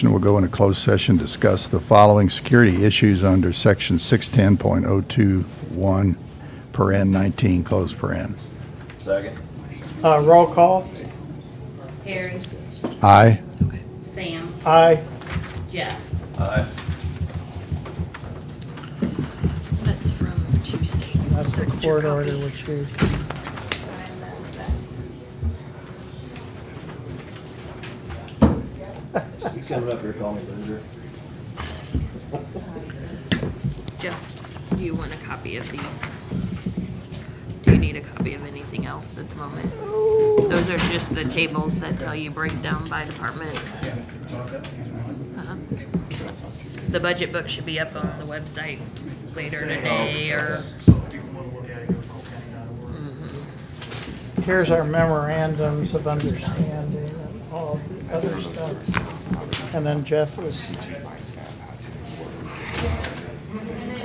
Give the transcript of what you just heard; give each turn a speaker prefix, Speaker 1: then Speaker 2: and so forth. Speaker 1: We'll go into closed session, discuss the following security issues under section 610.021 per N 19, closed per N.
Speaker 2: Second.
Speaker 3: Uh, roll call,
Speaker 4: Harry,
Speaker 1: Aye.
Speaker 4: Sam,
Speaker 3: aye.
Speaker 4: Jeff.
Speaker 2: Aye.
Speaker 5: That's from Tuesday.
Speaker 3: That's the
Speaker 5: That's your
Speaker 3: court order,
Speaker 5: copy.
Speaker 3: which we,
Speaker 2: You coming up here calling me loser?
Speaker 5: Jeff, do you want a copy of these? Do you need a copy of anything else at the moment? Those are just the tables that tell you breakdown by department. Uh-huh. The budget book should be up on the website later today or,
Speaker 6: So if people want to look at it, go to coalcounty.org.
Speaker 3: here's our memorandums of understanding and all the other stuff. And then Jeff was